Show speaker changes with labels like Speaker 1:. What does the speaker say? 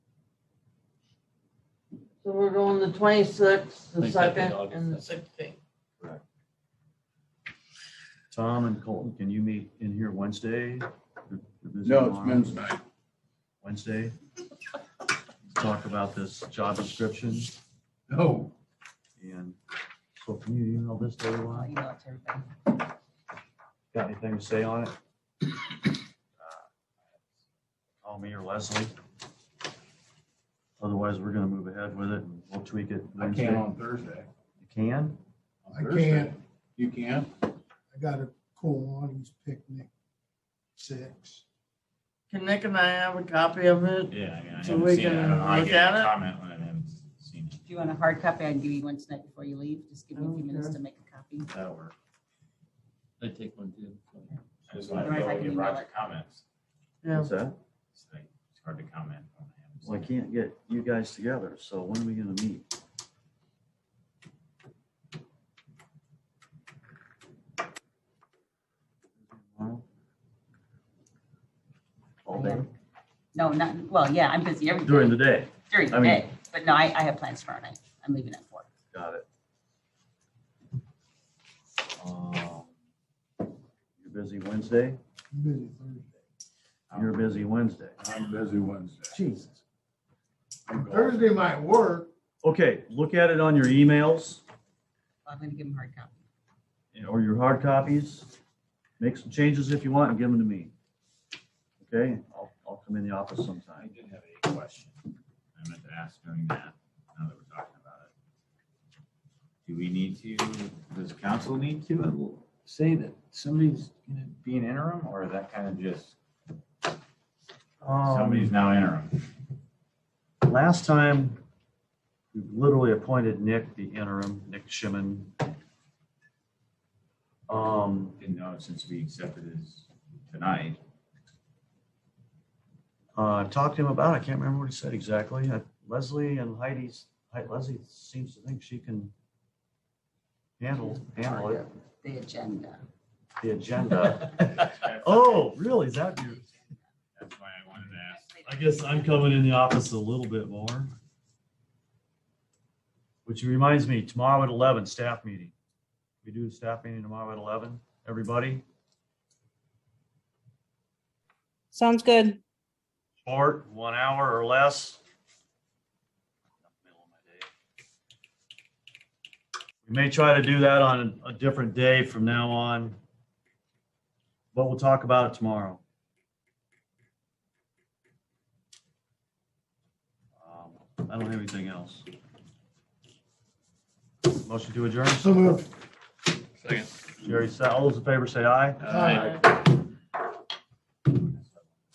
Speaker 1: So we're going the twenty-sixth, the
Speaker 2: Think that'd be
Speaker 1: second,
Speaker 2: August,
Speaker 1: and
Speaker 2: that's-
Speaker 3: same thing.
Speaker 4: Tom and Colton, can you meet in here Wednesday? They're- they're busy
Speaker 5: No, it's
Speaker 4: tomorrow.
Speaker 5: men's night.
Speaker 4: Wednesday. Talk about this job description
Speaker 5: No,
Speaker 4: and so can you email this to
Speaker 3: I'll
Speaker 4: everyone?
Speaker 3: email it to everybody.
Speaker 4: Got anything to say on it? Uh, Call me or Leslie. Otherwise, we're gonna move ahead with it and we'll tweak
Speaker 5: I
Speaker 4: it
Speaker 5: can't
Speaker 4: Wednesday.
Speaker 5: on Thursday.
Speaker 4: You can?
Speaker 5: On
Speaker 6: I
Speaker 5: Thursday.
Speaker 6: can't.
Speaker 5: You can?
Speaker 6: I got a Kiwanis picnic, six.
Speaker 1: can Nick and I have a copy of it?
Speaker 2: Yeah, I mean, I
Speaker 1: So
Speaker 2: haven't
Speaker 1: we
Speaker 2: seen it. I
Speaker 1: can
Speaker 2: don't know. I
Speaker 1: look
Speaker 2: get
Speaker 1: at
Speaker 2: a
Speaker 1: it?
Speaker 2: comment when I haven't seen it.
Speaker 3: If you want a hard copy, I can give you one tonight before you leave. Just give me a few minutes to make a copy.
Speaker 4: That'll work.
Speaker 2: I take one too. I just
Speaker 3: Right,
Speaker 2: wanted to
Speaker 3: if
Speaker 2: go
Speaker 3: I can
Speaker 2: and give
Speaker 3: email
Speaker 2: Roger
Speaker 3: it.
Speaker 2: comments.
Speaker 1: Yeah,
Speaker 4: What's that?
Speaker 2: It's like, it's hard to comment when I haven't
Speaker 4: Well, I
Speaker 2: seen it.
Speaker 4: can't get you guys together, so when are we gonna meet? Tomorrow? All day,
Speaker 3: No, not, well, yeah, I'm busy every
Speaker 4: during
Speaker 3: day,
Speaker 4: the day,
Speaker 3: during
Speaker 4: I
Speaker 3: the
Speaker 4: mean-
Speaker 3: day. But no, I, I have plans tomorrow night. I'm leaving at four.
Speaker 4: got it.
Speaker 5: uh,
Speaker 4: Um, You're busy Wednesday,
Speaker 6: I'm busy Thursday.
Speaker 2: Um,
Speaker 4: you're busy Wednesday.
Speaker 5: I'm busy Wednesday.
Speaker 4: Jesus.
Speaker 5: I'm golfing.
Speaker 6: Thursday might work.
Speaker 4: Okay, look at it on your emails.
Speaker 3: I'm gonna give them hard copy.
Speaker 4: and- or your hard copies. Make some changes if you want and give them to me. Okay, I'll, I'll come in the office
Speaker 2: I
Speaker 4: sometime.
Speaker 2: did have a question. I meant to ask during that, now that we're talking about it. Do we need to, does council need to say that somebody's gonna be an interim or is that kind of just, somebody's
Speaker 4: Um,
Speaker 2: now interim?
Speaker 4: last time, we literally appointed Nick the interim, Nick Shimon. Um,
Speaker 2: Didn't know since we accepted his tonight.
Speaker 4: uh, talked to him about, it. I can't remember what he said exactly. Uh, Leslie and Heidi's, Hei- Leslie seems to think she can handle, handle it,
Speaker 3: The agenda.
Speaker 4: the agenda.
Speaker 2: That's
Speaker 4: Oh, really? Is that your?
Speaker 2: why I wanted to ask.
Speaker 4: I guess I'm coming in the office a little bit more. Which reminds me, tomorrow at eleven, staff meeting. We do a staff meeting tomorrow at eleven, everybody,
Speaker 7: Sounds good.
Speaker 4: short, one hour or less. We may try to do that on a different day from now on. But we'll talk about it tomorrow. Um, I don't have anything else. Motion to adjourn.
Speaker 6: So moved.
Speaker 4: Jerry, all those in favor say aye.
Speaker 1: Uh,
Speaker 6: Aye.